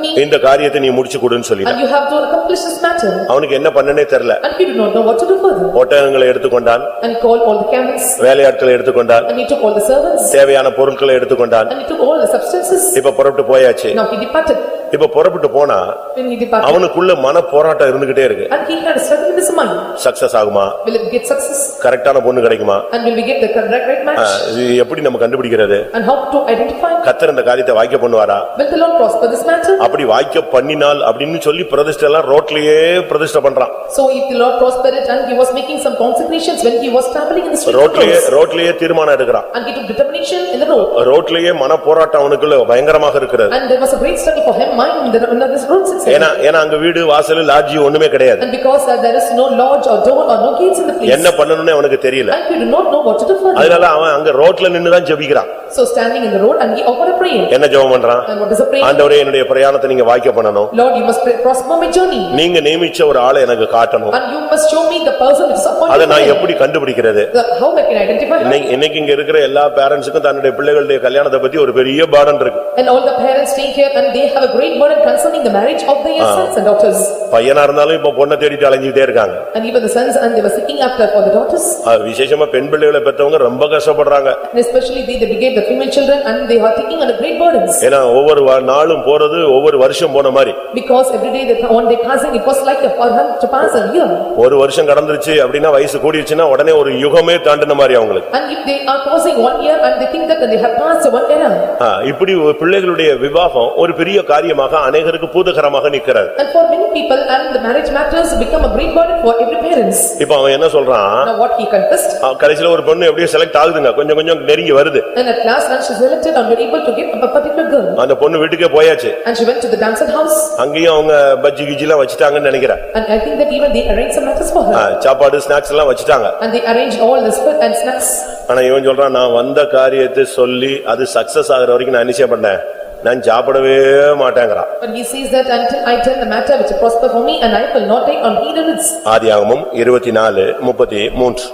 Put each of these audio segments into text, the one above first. me இந்த காரியத்தை நீ முடிச்சு கொடுன்னு சொல்லிட்டான் and you have to accomplish this matter. அவனுக்கு என்ன பண்ணனே தெரியல And he did not know what to do further. ஒட்டகங்களை எடுத்துக்கொண்டான் And he called all the camels வேலையாட்களை எடுத்துக்கொண்டான் and he took all the servants தேவையான பொருட்களை எடுத்துக்கொண்டான் and he took all the substances. இப்ப புறப்பட்டு போயாச்சு Now he departed. இப்ப புறப்பட்டு போனா When he departed அவனுக்குள்ள மன போராட்டம் இருந்துகிட்டே இருக்கு and he had a struggle in his mind. Success ஆகுமா Will it get success கரெக்டான பொண்ணு கிடைக்குமா and will we get the correct right ah, match? இது எப்படி நம்ம கண்டுபிடிக்கிறது And how to identify? கத்தர் இந்த காரியத்தை வாய்க்க பண்ணுவாரா Will the Lord prosper this matter? அப்படி வாய்க்க பண்ணினால் அப்படின்னு சொல்லி பிரதிஷ்டை எல்லாம் ரோட்லயே பிரதிஷ்டை பண்றான் So if the Lord prospered it and he was making some consecrations when he was traveling in the street of ரோட்லயே Rhodes. ரோட்லயே தீர்மானம் எடுக்கிறான் And he took determination in the road ரோட்லயே மன போராட்டம் அவனுக்குள்ள பயங்கரமாக இருக்கிறது and there was a great struggle for him mind in the- in this road itself. ஏன்னா ஏன்னா அங்க வீடு வாசல் லாட்ஜி ஒண்ணுமே கிடையாது And because uh, there is no lodge or door or no gates in the place என்ன பண்ணணும்னு அவனுக்கு தெரியல and he do not know what to do further. அதனால அவன் அங்க ரோட்ல நின்னு தான் ஜெபிக்கிறான் So standing in the road and he offered a prayer. என்ன ஜெபம் பண்றான் And what is a prayer? ஆண்டவரே என்னுடைய பிரயாணத்தை நீங்க வாய்க்க பண்ணணும் Lord, you must pray- prosper my journey நீங்க நியமிச்ச ஒரு ஆளை எனக்கு காட்டணும் and you must show me the person which is அதை appointed for நான் me. எப்படி கண்டுபிடிக்கிறது The- How I can identify her? இன்னைக்கு இன்னைக்கு இங்க இருக்கிற எல்லா பேரண்ட்ஸுக்கும் தன்னுடைய பிள்ளைகளுடைய கல்யாணத்தை பத்தி ஒரு பெரிய பாடம் இருக்கு And all the parents take care and they have a great burden concerning the marriage of their sons and daughters. பையனா இருந்தாலும் இப்ப பொண்ணை தேடிட்டு அலைஞ்சிட்டே இருக்காங்க And even the sons and they were seeking after for the daughters. அது விசேஷமா பெண் பிள்ளைகளை பெத்தவங்க ரொம்ப கஷ்டப்படுறாங்க And especially they, they beget the female children and they are taking under great burdens. ஏன்னா ஒவ்வொரு வா- நாளும் போறது ஒவ்வொரு வருஷம் போன மாதிரி Because every day that one day passing, it was like a- for them to pass a year. ஒரு வருஷம் கடந்துருச்சு அப்படின்னா வயசு கூடிருச்சுன்னா உடனே ஒரு யுகமே தாண்டின மாதிரி அவங்களுக்கு And if they are passing one year and they think that they have passed one era. ஆ, இப்படி ஒரு பிள்ளைகளுடைய விவாகம் ஒரு பெரிய காரியமாக அநேகருக்கு பூதகரமாக நிக்கிறது And for many people and the marriage matters become a great burden for every parents. இப்ப அவன் என்ன சொல்றான் Now what he confessed ஆ, கடைசியில ஒரு பொண்ணு எப்படியோ செலக்ட் ஆகுதுங்க கொஞ்சம் கொஞ்சம் நெருங்கி வருது and at last when she selected and were able to give up a particular girl. அந்த பொண்ணு வீட்டுக்கே போயாச்சு And she went to the dancer house அங்கேயும் அவங்க பஜ்ஜி கிஜி எல்லாம் வச்சுட்டாங்கன்னு நினைக்கிறேன் and I think that even they arranged some matters for ah, her. சாப்பாடு snacks எல்லாம் வச்சுட்டாங்க And they arranged all the food and snacks. ஆனா இவன் சொல்றான் நான் வந்த காரியத்தை சொல்லி அது சக்சஸ் ஆகுற வரைக்கும் நான் நிச்சயம் பண்ணேன் நான் சாப்பிடவே மாட்டேங்கிறான் But he says that until I tell the matter which prosper for me and I will not take on heed of its ஆதியாகமம் இருபத்தி நாலு முப்பத்தி மூன்று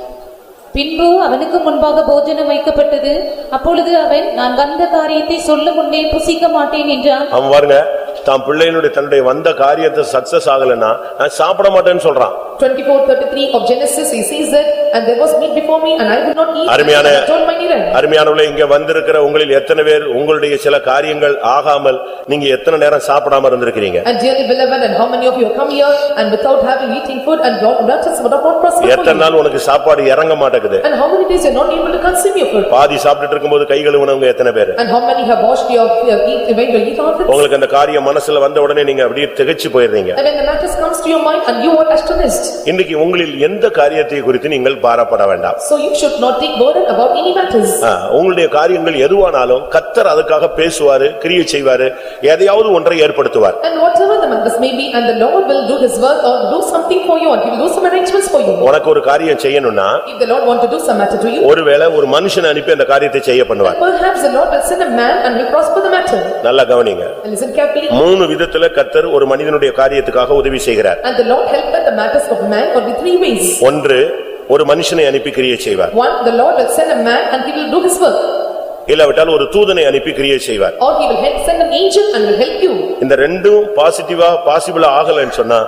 பின்பு அவனுக்கு முன்பாக போஜனம் வைக்கப்பட்டது அப்பொழுது அவன் நான் வந்த காரியத்தை சொல்ல முன்னே புசிக்க மாட்டேன் என்றான் அவன் பாருங்க தான் பிள்ளையினுடைய தன்னுடைய வந்த காரியத்தை சக்சஸ் ஆகலைன்னா நான் சாப்பிட மாட்டேன்னு சொல்றான் 24:33 of Genesis, he says that, "And there was meat before me, and I will not eat." அருமையான- and I told my neighbor. அருமையானவர்களே இங்க வந்திருக்கிற உங்களில் எத்தனை பேர் உங்களுடைய சில காரியங்கள் ஆகாமல் நீங்க எத்தனை நேரம் சாப்பிடாம இருந்திருக்கிறீங்க And dearly beloved, and how many of you have come here, and without having eating food, and not not just what about prosper for எத்தனை you? நாள் உனக்கு சாப்பாடு இறங்க மாட்டேங்குது And how many days you're not able to consume your food? பாதி சாப்பிட்டுட்டு இருக்கும்போது கை கழுவுனவங்க எத்தனை பேர் And how many have washed your, your eat, when you eat out it? உங்களுக்கு அந்த காரியம் மனசுல வந்த உடனே நீங்க அப்படியே திகைச்சு போயிடுறீங்க And when the matters comes to your mind, and you are astonished. இன்னைக்கு உங்களில் எந்த காரியத்தை குறித்து நீங்கள் பாரப்பட வேண்டாம் So you should not take burden about any matters. ஆ, உங்களுடைய காரியங்கள் எதுவானாலும் கத்தர் அதுக்காக பேசுவாரு கிரியை செய்வாரு எதையாவது ஒன்றை ஏற்படுத்துவார் And whatever the matters may be, and the Lord will do his work, or do something for you, or he will do some arrangements for you. உனக்கு ஒரு காரியம் செய்யணும்னா If the Lord want to do some matter to you, ஒருவேளை ஒரு மனுஷனை அனுப்பி அந்த காரியத்தை செய்ய பண்ணுவார் Perhaps the Lord will send a man and will prosper the matter. நல்லா கவனிங்க And Listen carefully, மூணு விதத்துல கத்தர் ஒரு மனிதனுடைய காரியத்துக்காக உதவி செய்கிறார் and the Lord helpeth the matters of man for the three ways. ஒன்று ஒரு மனுஷனை அனுப்பி கிரியை செய்வார் One, the Lord will send a man and he will do his work, இல்லாவிட்டால் ஒரு தூதனை அனுப்பி கிரியை செய்வார் or he will help send an angel and will help you. இந்த ரெண்டும் பாசிட்டிவா பாசிபிளா ஆகலைன்னு சொன்னா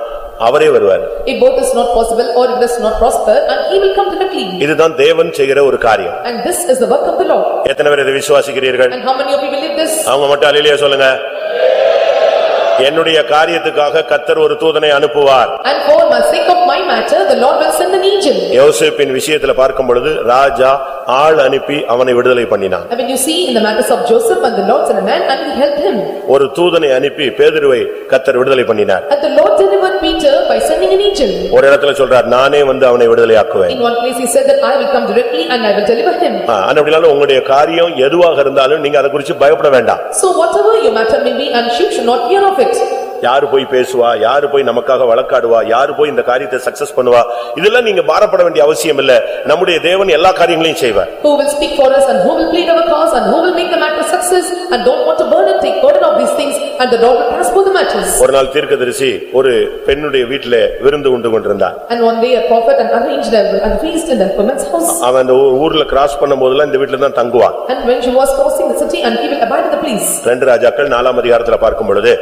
அவரே வருவார் If both is not possible or it does not prosper, and he will come directly. இதுதான் தேவன் செய்கிற ஒரு காரியம் And this is the work of the Lord. எத்தனை பேர் இதை விசுவாசிக்கிறீர்கள் And how many of you believe this? அவங்க மட்டும் அலிலியா சொல்லுங்க என்னுடைய காரியத்துக்காக கத்தர் ஒரு தூதனை அனுப்புவார் And for my sake of my matter, the Lord will send an angel. யோசேப்பின் விஷயத்துல பார்க்கும் பொழுது ராஜா ஆள் அனுப்பி அவனை விடுதலை பண்ணினான் And when you see in the matters of Joseph and the Lord sent a man and he helped him. ஒரு தூதனை அனுப்பி பேதுருவை கத்தர் விடுதலை பண்ணினார் And the Lord delivered Peter by sending an angel. ஒரு இடத்துல சொல்றார் நானே வந்து அவனை விடுதலையாக்குவேன் In one place he said that I will come directly and I will deliver him. ஆ, ஆனா அப்படினாலும் உங்களுடைய காரியம் எதுவாக இருந்தாலும் நீங்க அதை குறிச்சு பயப்பட வேண்டாம் So whatever your matter may be and you should not fear of it. யாரு போய் பேசுவா யாரு போய் நமக்காக வழக்காடுவா யாரு போய் இந்த காரியத்தை சக்சஸ் பண்ணுவா இதெல்லாம் நீங்க பாரப்பட வேண்டிய அவசியம் இல்ல நம்முடைய தேவன் எல்லா காரியங்களையும் செய்வார் Who will speak for us and who will plead our cause and who will make the matter success and don't want to burden, take burden of these things and the Lord will prosper the matters. ஒரு நாள் தீர்க்கதரிசி ஒரு பெண்ணுடைய வீட்டில விருந்து உண்டு கொண்டிருந்தான் And one day a prophet and arranged a a feast in that woman's house. அவன் அந்த ஊ- ஊர்ல கிராஸ் பண்ணும்போதெல்லாம் இந்த வீட்டுல தான் தங்குவான் And when she was crossing the city and he will abide in the place. ரெண்டு ராஜாக்கள் நாலாம் அதிகாரத்துல பார்க்கும் பொழுது